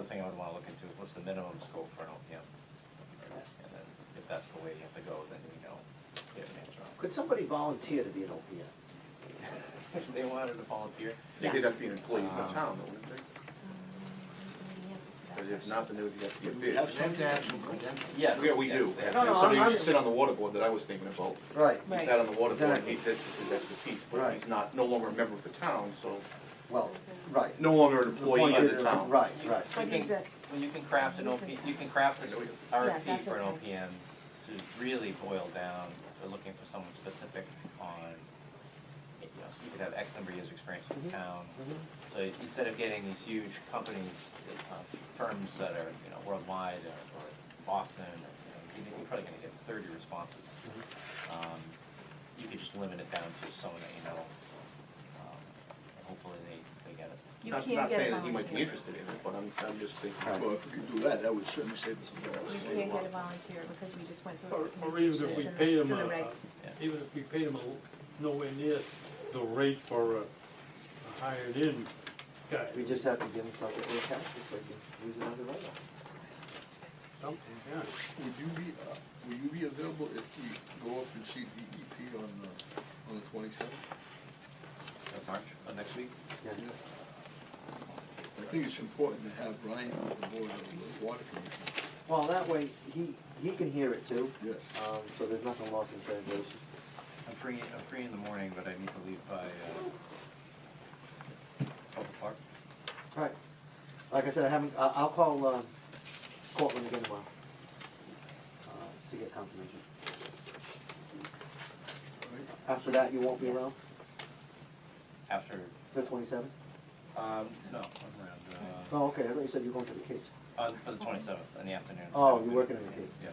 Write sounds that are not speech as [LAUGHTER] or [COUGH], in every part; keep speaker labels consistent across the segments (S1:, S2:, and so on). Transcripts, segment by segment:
S1: thing I would wanna look into is what's the minimum scope for an OPM? And then if that's the way you have to go, then we know, we have an answer on it.
S2: Could somebody volunteer to be an OPM?
S1: If [LAUGHS] they wanted to volunteer,
S3: Yes. Um,
S4: They'd have to be an employee of the town, though, wouldn't they? Because if not, then they would have to get
S5: You
S4: bid.
S5: have some to have some credentials.
S1: yes.
S4: Yeah, we
S1: yes,
S4: do.
S1: they have-
S2: No, no,
S4: Somebody
S2: I'm-
S4: who should sit on the water board that I was thinking about.
S2: Right,
S4: He sat on the water board,
S2: Exactly.
S4: he, that's his expertise, but
S2: Right.
S4: he's not, no longer a member of the town, so,
S2: well, right.
S4: no longer an
S2: The
S4: employee
S2: point
S4: of
S2: is-
S4: the town.
S2: Right, right.
S1: You
S3: But he's
S1: can,
S3: a-
S1: well, you can craft an
S3: he's
S1: OP,
S3: a-
S1: you can craft this
S3: Yeah,
S1: RFP
S3: that's
S1: for an
S3: okay.
S1: OPM to really boil down, to looking for someone specific on, you know, so you could have X number of years of experience in
S2: Mhm.
S1: town. So instead of getting these huge companies, uh, firms that are, you know, worldwide or or Boston, or, you know, you're probably gonna get thirty responses. Um, You could just limit it down to someone that you know, um, and hopefully they, they get it.
S3: You
S4: Not-
S3: can't
S4: Not
S3: get a
S4: saying that he might be
S3: volunteer.
S4: interested in it, but I'm, I'm just
S2: Right.
S4: thinking,
S5: Well, if you could do that, that would certainly save us some
S3: You
S5: dollars.
S3: can't get a volunteer because we just went through.
S6: Or-
S3: organizations
S6: Or even if we
S3: and
S6: paid
S3: to
S6: them,
S3: the
S6: a-
S3: regs.
S6: even if we paid them a- nowhere near the rate for a a hired-in guy,
S2: We just have to give them something to account, just like you use it as a write-off.
S6: something, yeah.
S5: Would you be, uh, will you be available if we go up and see DEP E on, uh, on the twenty-seventh?
S1: That's March, uh, next week?
S2: Yeah.
S5: I think it's important to have Ryan on the board of the water commission.
S2: Well, that way, he, he can hear it too,
S5: Yes.
S2: um, so there's nothing lost in translation.
S1: I'm free, I'm free in the morning, but I need to leave by, uh, twelve o'clock.
S2: Right. Like I said, I haven't, I, I'll call, um, Cortland again tomorrow, uh, to get confirmation. After that, you won't be around,
S1: After,
S2: the twenty-seventh?
S1: um, no, I'm around,
S2: Oh, okay, I thought you said you were going to the Cape.
S1: uh, uh, for the twenty-seventh in the afternoon.
S2: Oh, you're working in the Cape.
S1: Yeah.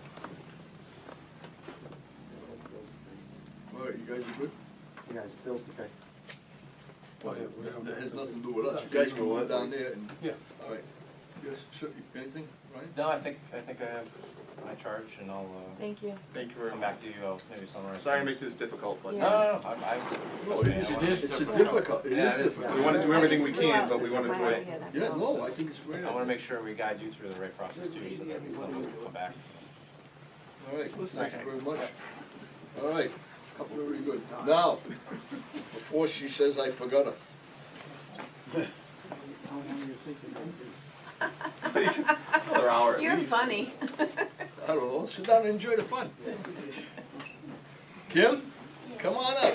S5: All right, you guys are good?
S2: You guys, bills to pay.
S5: Well,
S6: Yeah, we don't-
S5: That has nothing to do with us, you guys can go down there and,
S6: Yeah.
S5: all right. Yes, sir, anything, Ryan?
S1: No, I think, I think I have my charge and I'll, uh,
S3: Thank you.
S4: thank you very
S1: come
S4: much.
S1: back to you, I'll maybe summarize.
S4: Sorry to
S1: things.
S4: make this difficult, but.
S1: No, no, no, I'm, I.
S5: No, it is, it is, it's a difficult, it
S1: Yeah, it
S5: is
S1: is.
S5: difficult.
S4: We wanna do everything we
S3: I just threw
S4: can,
S3: out
S4: but we
S3: some
S4: wanna do
S3: bad
S4: it.
S3: idea, that's
S5: Yeah,
S3: all.
S5: no, I think it's a great.
S1: I wanna
S5: idea.
S1: make sure we guide you through the right process too, so that we'll come back.
S5: All right, thank you
S1: Okay.
S5: very much. All right, very good. Now, before she says I forgot her.
S4: Another hour at
S3: You're
S4: least.
S5: [LAUGHS]
S3: funny.
S5: I don't know, sit down and enjoy the fun. Kim, come on up.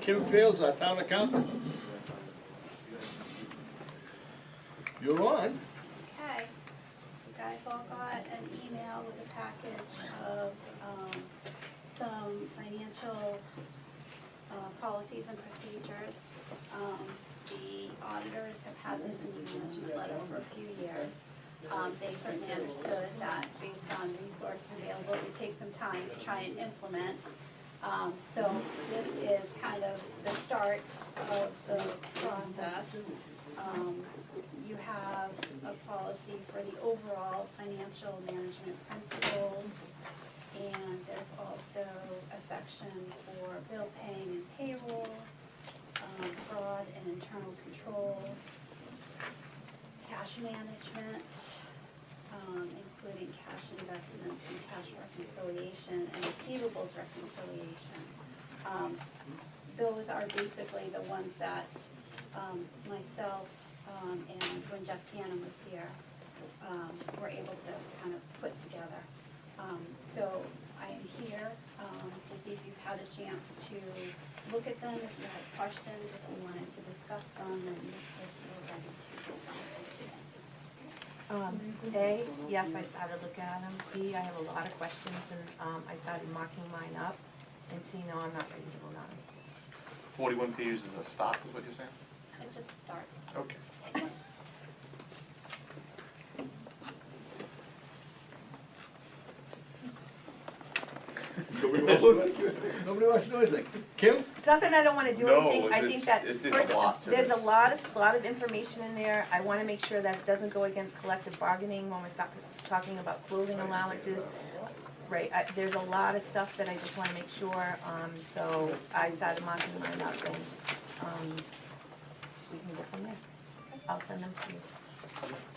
S5: Kim Fields, our town accountant. You're on.
S7: Okay, you guys all got an email with a package of, um, some financial, uh, policies and procedures. Um, the auditors have had this in the management letter for a few years. Um, they certainly understood that based on resources available, it would take some time to try and implement. Um, so this is kind of the start of the process. Um, you have a policy for the overall financial management principles. And there's also a section for bill paying and payroll, um, fraud and internal controls, cash management, um, including cash investments and cash reconciliation and receivables reconciliation. Um, those are basically the ones that, um, myself, um, and when Jeff Cannon was here, um, were able to kind of put together. Um, so I am here, um, to see if you've had a chance to look at them, if you had questions, if you wanted to discuss them, and if you're ready to go on.
S3: [LAUGHS] Um, A, yes, I started looking at them. B, I have a lot of questions and, um, I started marking mine up. And C, no, I'm not ready to go on.
S4: Forty-one pages is a stock, is what you're saying?
S7: It's just a start.
S4: Okay.
S5: Nobody wants to know- nobody wants to know anything. Kim?
S3: It's not that I don't wanna do
S4: No,
S3: anything, I think
S4: it's-
S3: that,
S4: it is a
S3: first,
S4: lot to
S3: there's a
S4: this.
S3: lot of, lot of information in there. I wanna make sure that it doesn't go against collective bargaining when we start talking about clothing allowances. Right, I, there's a lot of stuff that I just wanna make sure, um, so I started marking mine up and, um, we can go from there. I'll send them to you.